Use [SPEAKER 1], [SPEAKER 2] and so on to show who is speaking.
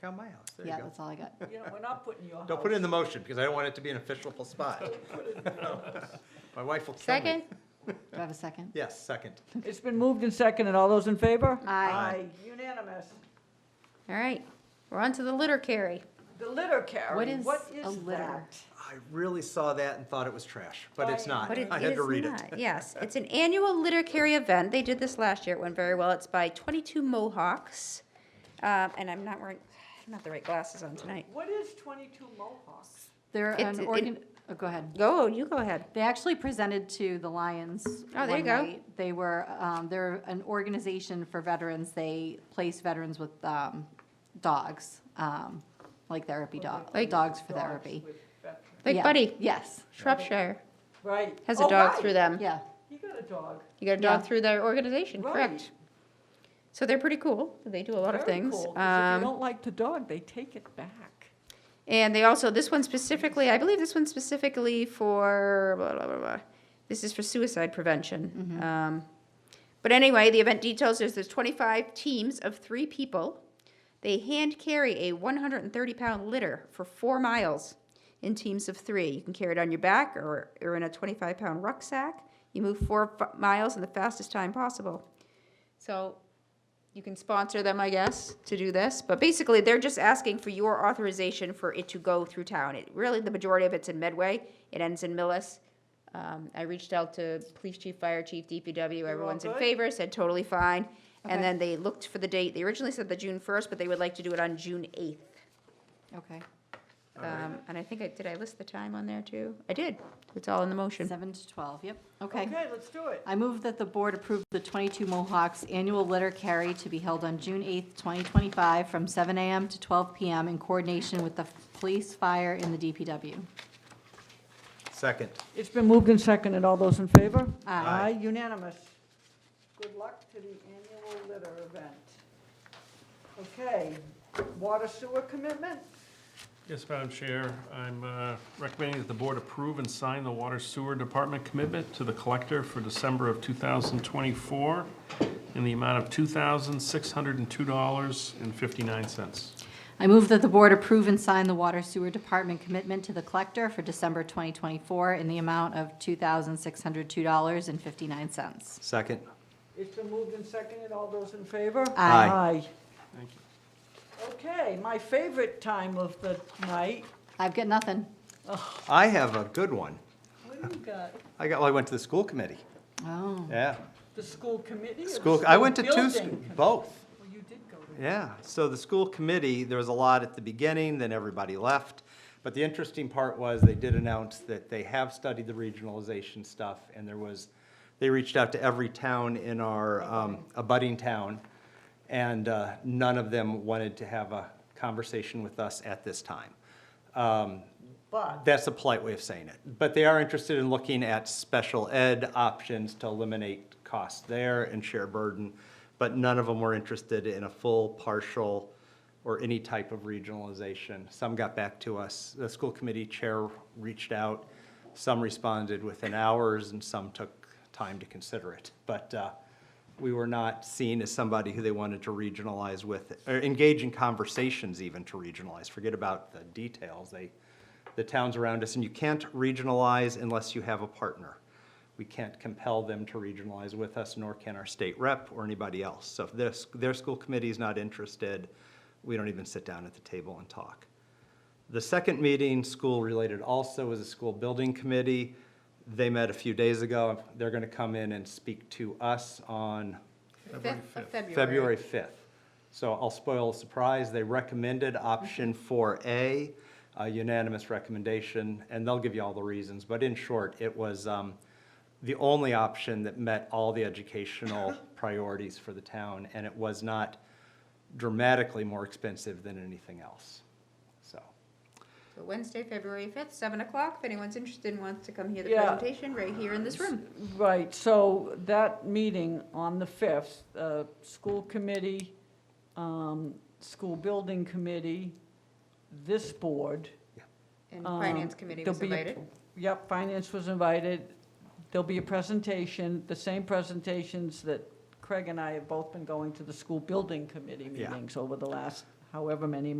[SPEAKER 1] Cal my house, there you
[SPEAKER 2] Yeah,
[SPEAKER 1] go.
[SPEAKER 2] that's all I got.
[SPEAKER 3] You know, we're not putting your house.
[SPEAKER 1] Don't put it in the motion, because I don't want it to be an official spot. My wife will kill me.
[SPEAKER 4] Second?
[SPEAKER 2] Do I have a second?
[SPEAKER 1] Yes, second.
[SPEAKER 3] It's been moved and seconded. All those in favor?
[SPEAKER 4] Aye.
[SPEAKER 3] Unanimous.
[SPEAKER 4] All right, we're on to the litter carry.
[SPEAKER 3] The litter carry.
[SPEAKER 2] What is
[SPEAKER 3] What
[SPEAKER 2] a
[SPEAKER 3] is
[SPEAKER 2] litter?
[SPEAKER 3] that?
[SPEAKER 1] I really saw that and thought it was trash, but it's
[SPEAKER 3] Right.
[SPEAKER 1] not.
[SPEAKER 4] But it
[SPEAKER 1] I had to
[SPEAKER 4] is
[SPEAKER 1] read it.
[SPEAKER 4] not, Yes, it's an annual litter carry event. They did this last year. It went very well. It's by 22 Mohawks. Um, And I'm not wearing, I don't have the right glasses on tonight.
[SPEAKER 3] What is twenty-two Mohawks?
[SPEAKER 2] They're
[SPEAKER 4] It's-
[SPEAKER 2] an
[SPEAKER 4] it-
[SPEAKER 2] organ, oh, go ahead.
[SPEAKER 4] Go, you go ahead.
[SPEAKER 2] They actually presented to the Lions.
[SPEAKER 4] Oh, there you
[SPEAKER 2] one
[SPEAKER 4] go.
[SPEAKER 2] night. They were, um, they're an organization for veterans. They place veterans with, um, dogs, um, like therapy dog,
[SPEAKER 4] Like-
[SPEAKER 2] dogs for
[SPEAKER 3] Dogs
[SPEAKER 2] therapy.
[SPEAKER 3] with veterans.
[SPEAKER 4] Like
[SPEAKER 2] Yeah.
[SPEAKER 4] Buddy,
[SPEAKER 2] Yes,
[SPEAKER 4] Shropshire
[SPEAKER 3] Right.
[SPEAKER 4] has a
[SPEAKER 3] Oh,
[SPEAKER 4] dog
[SPEAKER 3] right.
[SPEAKER 4] through them.
[SPEAKER 2] yeah.
[SPEAKER 3] You got a dog.
[SPEAKER 4] You got a dog
[SPEAKER 2] Yeah.
[SPEAKER 4] through their organization, correct?
[SPEAKER 3] Right.
[SPEAKER 4] So they're pretty cool. They do a lot of
[SPEAKER 3] Very
[SPEAKER 4] things.
[SPEAKER 3] cool, 'cause if
[SPEAKER 4] Um,
[SPEAKER 3] you don't like the dog, they take it back.
[SPEAKER 4] And they also, this one specifically, I believe this one specifically for blah, blah, blah, blah. This is for suicide prevention. Um, but anyway, the event details is there's 25 teams of three people. They hand carry a 130 pound litter for four miles in teams of three. You can carry it on your back or, or in a 25 pound rucksack. You move four f- miles in the fastest time possible. So you can sponsor them, I guess, to do this, but basically, they're just asking for your authorization for it to go through town. It, really, the majority of it's in Medway, it ends in Millis. Um, I reached out to police chief, fire chief, DPW,
[SPEAKER 3] all
[SPEAKER 4] everyone's in
[SPEAKER 3] good?
[SPEAKER 4] favor, said totally fine.
[SPEAKER 2] Okay.
[SPEAKER 4] And then they looked for the date, they originally said the June first, but they would like to do it on June eighth.
[SPEAKER 2] Okay.
[SPEAKER 4] Um, and I think I, did I list the time on there too? I did, it's all in the motion.
[SPEAKER 2] Seven to 12, yep, okay.
[SPEAKER 3] Okay, let's do it.
[SPEAKER 2] I move that the board approve the 22 Mohawks annual litter carry to be held on June 8th, 2025, from 7 a.m. to 12 p.m. in coordination with the police, fire, and the DPW.
[SPEAKER 1] Second.
[SPEAKER 3] It's been moved and seconded. All those in favor?
[SPEAKER 1] Aye.
[SPEAKER 3] Aye, unanimous. Good luck to the annual litter event. Okay, water sewer commitment?
[SPEAKER 5] Yes, Madam Chair, I'm uh, recommending that the board approve and sign the Water Sewer Department commitment to the collector for December of 2024 in the amount of $2,602.59.
[SPEAKER 2] I move that the board approve and sign the Water Sewer Department commitment to the collector for December 2024 in the amount of $2,602.59.
[SPEAKER 1] Second.
[SPEAKER 3] It's been moved and seconded. All those in favor?
[SPEAKER 1] Aye.
[SPEAKER 5] Thank you.
[SPEAKER 3] Okay, my favorite time of the night.
[SPEAKER 2] I've got nothing.
[SPEAKER 1] I have a good one.
[SPEAKER 3] What do you got?
[SPEAKER 1] I got, well, I went to the school committee.
[SPEAKER 2] Oh.
[SPEAKER 1] Yeah.
[SPEAKER 3] The school committee or the
[SPEAKER 1] School, I went to two,
[SPEAKER 3] building
[SPEAKER 1] sch-
[SPEAKER 3] committee?
[SPEAKER 1] both.
[SPEAKER 3] Well, you did go to.
[SPEAKER 1] Yeah, so the school committee, there was a lot at the beginning, then everybody left. But the interesting part was, they did announce that they have studied the regionalization stuff, and there was, they reached out to every town in our um, abutting town, and uh, none of them wanted to have a conversation with us at this time. Um,
[SPEAKER 3] But
[SPEAKER 1] That's a polite way of saying it. But they are interested in looking at special ed options to eliminate costs there and share burden. But none of them were interested in a full, partial, or any type of regionalization. Some got back to us. The school committee chair reached out. Some responded within hours and some took time to consider it. But uh, we were not seen as somebody who they wanted to regionalize with, or engage in conversations even to regionalize. Forget about the details. They, the towns around us, and you can't regionalize unless you have a partner. We can't compel them to regionalize with us, nor can our state rep or anybody else. So if their, their school committee is not interested, we don't even sit down at the table and talk. The second meeting, school-related also, was a school building committee. They met a few days ago. They're going to come in and speak to us on February 5th. So I'll spoil the surprise, they recommended option 4A, a unanimous recommendation, and they'll give you all the reasons. But in short, it was um, the only option that met all the educational priorities for the town, and it was not dramatically more expensive than anything else. So,
[SPEAKER 4] So Wednesday, February 5th, 7 o'clock, if anyone's interested and wants to come hear the
[SPEAKER 3] Yeah.
[SPEAKER 4] presentation, right here in this room.
[SPEAKER 3] Right, so that meeting on the 5th, uh, school committee, um, school building committee, this board.
[SPEAKER 4] And
[SPEAKER 3] um,
[SPEAKER 4] Finance Committee
[SPEAKER 3] there'll
[SPEAKER 4] was
[SPEAKER 3] be a-
[SPEAKER 4] invited.
[SPEAKER 3] Yep, finance was invited. There'll be a presentation, the same presentations that Craig and I have both been going to the school building committee
[SPEAKER 1] Yeah.
[SPEAKER 3] meetings over the last however many months.